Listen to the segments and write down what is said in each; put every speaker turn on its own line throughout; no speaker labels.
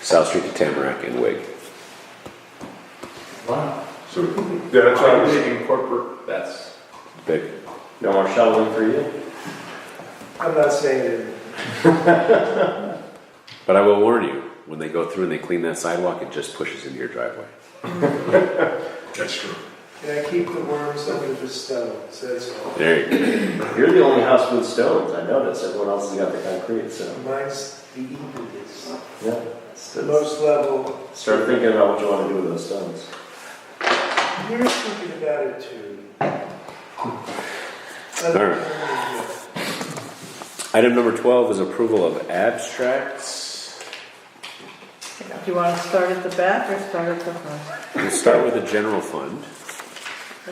South Street to Tamarack and Wig.
Wow.
So, yeah, that's why I was thinking,
incorporate, that's,
Vic,
no more shoveling for you?
I'm not saying it.
but I will warn you, when they go through and they clean that sidewalk, it just pushes into your driveway.
that's true.
And I keep the worms under the stone, so that's all.
There you go.
You're the only house with stones, I noticed, everyone else has got the concrete, so,
Mine's the evilest,
yeah. it's-
the
it's-
most level.
Start thinking about what you wanna do with those stones.
You're thinking about it too.
All Item number twelve is approval of abstracts.
Do you want to start at the back or start at the front?
We'll start with the general fund.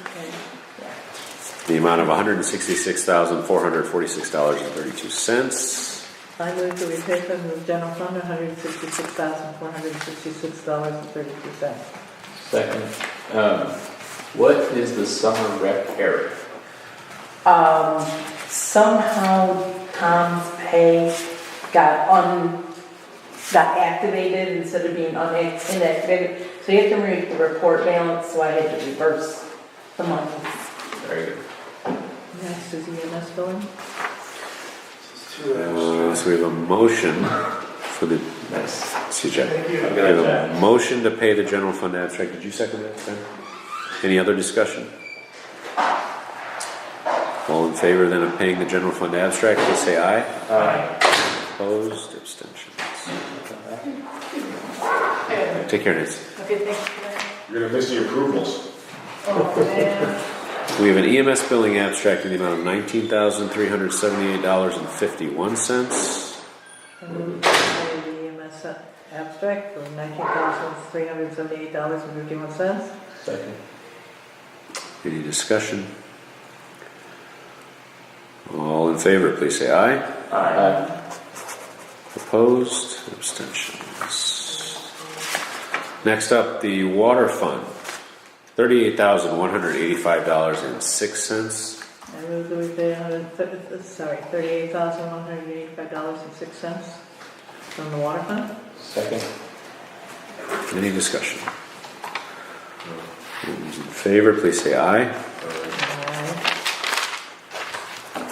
Okay.
the amount of $166,446.32.
I move that we pay from the general fund $166,466.32.
Second, um, what is the summer rec area?
um, somehow Tom's pay got un, got activated instead of being unac- inactivated. So you have to read the report balance, so I had to reverse the money.
Very good.
Next is EMS billing.
It's too
Uh,
abstract.
so we have a motion for the,
Nice.
excuse me,
Thank you.
we have a motion to pay the general fund abstract. Did you second that, Ben? Any other discussion? All in favor then of paying the general fund abstract, please say aye.
Aye.
Opposed, abstentions. Take care, Nancy.
Okay, thank
You're gonna miss the approvals.
you.
We have an EMS billing abstract in the amount of $19,378.51.
I move to pay the EMS abstract for $19,378.51.
Second.
Any discussion? All in favor, please say aye.
Aye.
Opposed, abstentions. Next up, the water fund, thirty-eight thousand one hundred eighty-five dollars and six cents.
I move that we pay, hundred thir- uh, sorry, $38,185.06 from the water fund.
Second.
Any discussion? Those In favor, please say aye.
Aye.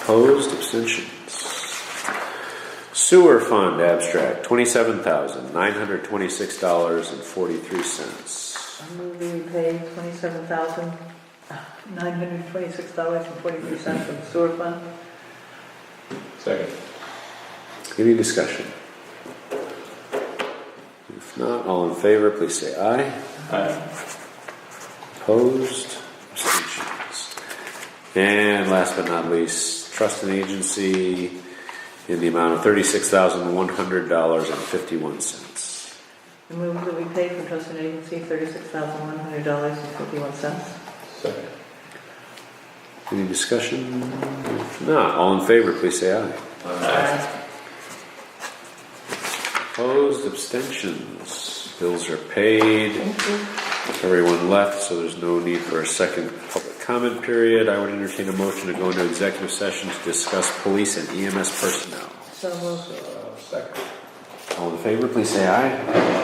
Opposed, abstentions. Sewer fund abstract, twenty-seven thousand nine hundred twenty-six dollars and forty-three cents.
I move that we pay uh, $27,926.43 from the sewer fund.
Second.
Any discussion? If not, all in favor, please say aye.
Aye.
Opposed? Abstentions. And last but not least, trust and agency in the amount of thirty-six thousand one hundred dollars and fifty-one cents.
I move that we pay from trust and agency $36,100.51.
Second.
Any discussion? If not, all in favor, please say aye. Opposed? Abstentions. Bills are paid. Everyone left, so there's no need for a second public comment period. I would entertain a motion to go into executive session to discuss police and EMS personnel.
So moved.
Uh, Second.
All in favor, please say aye.